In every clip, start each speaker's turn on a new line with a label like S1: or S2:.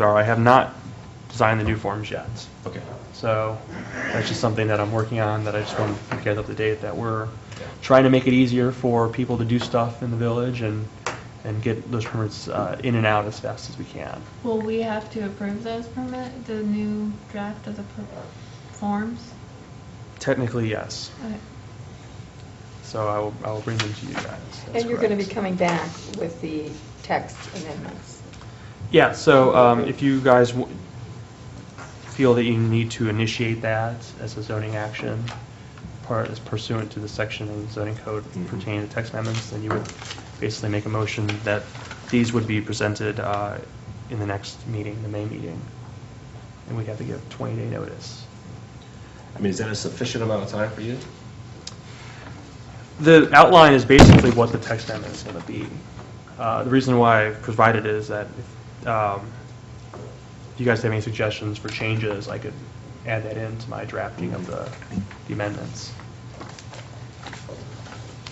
S1: are. I have not designed the new forms yet.
S2: Okay.
S1: So that's just something that I'm working on that I just want to get up to date, that we're trying to make it easier for people to do stuff in the village and, and get those permits uh, in and out as fast as we can.
S3: Will we have to approve those permit, the new draft of the per- forms?
S1: Technically, yes.
S3: Okay.
S1: So I will, I will bring them to you guys. That's
S4: And you're going to be
S1: correct.
S4: coming back with the text amendments.
S1: Yeah, so um, if you guys w- feel that you need to initiate that as a zoning action, part is pursuant to the section of the zoning code
S2: Mhm.
S1: pertaining to text amendments, then you would basically make a motion that these would be presented uh, in the next meeting, the May meeting. And we'd have to give 20-day notice.
S2: I mean, is that a sufficient amount of time for you?
S1: The outline is basically what the text amendment is going to be. Uh, The reason why I provided it is that if um, if you guys have any suggestions for changes, I could add that into my drafting of the the amendments.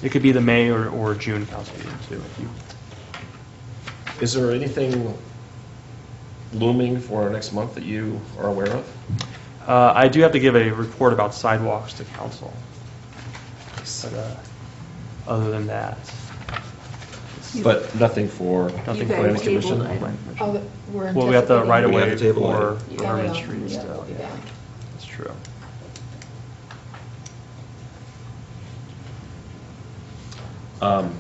S1: It could be the May or or June council meeting, too. if you-
S2: Is there anything looming for our next month that you are aware of?
S1: Uh, I do have to give a report about sidewalks to council. But, uh, Other than that. it's
S2: But nothing for,
S1: nothing
S4: guys
S1: planning
S4: tabled
S1: commission.
S4: it.
S1: Planning commission.
S4: Oh, the- we're
S1: Well, we have the
S4: anticipating-
S1: right of
S2: We have
S1: way
S2: to table it.
S1: for
S4: Yeah,
S1: Herman
S4: well,
S1: Street
S4: yeah,
S1: still,
S4: we'll be
S1: yeah.
S4: back.
S1: That's true.
S2: um,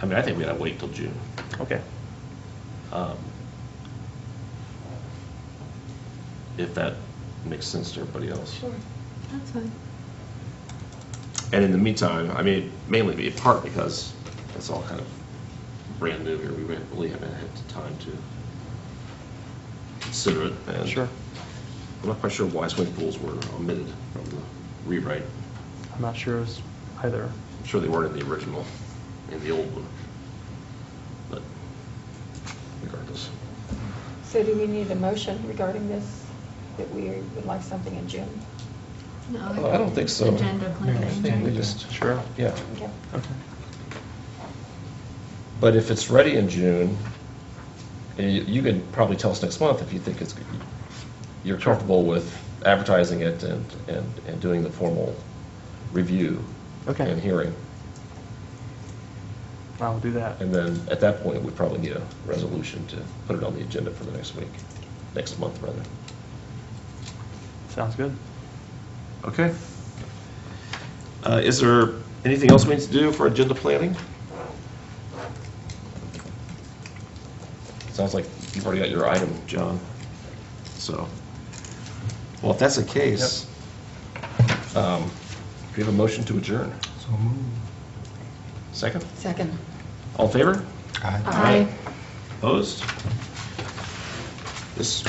S2: I mean, I think we gotta wait till June.
S1: Okay.
S2: um, If that makes sense to everybody else.
S4: Sure.
S3: That's fine.
S2: And in the meantime, I mean, mainly be in part because it's all kind of brand new here. We really haven't had the time to consider it. and
S1: Sure.
S2: I'm not quite sure why swimming pools were omitted from the rewrite.
S1: I'm not sure as either.
S2: I'm sure they weren't in the original, in the old one. But regardless.
S4: So do we need a motion regarding this, that we would like something in June?
S3: No,
S2: I don't think so.
S3: Agenda planning.
S2: We just,
S1: Sure.
S2: yeah.
S4: Okay.
S1: Okay.
S2: But if it's ready in June, eh, you can probably tell us next month if you think it's, you're
S1: Sure.
S2: comfortable with advertising it and, and, and doing the formal review
S1: Okay.
S2: and hearing.
S1: I will do that.
S2: And then, at that point, we probably need a resolution to put it on the agenda for the next week, next month, rather.
S1: Sounds good.
S2: Okay. Uh, Is there anything else we need to do for agenda planning? Sounds like you've already got your item, John. So, well, if that's the case, um, do we have a motion to adjourn?
S5: So moved.
S2: Second?
S4: Second.
S2: All in favor?
S5: Aye.
S4: Aye.
S2: Opposed? This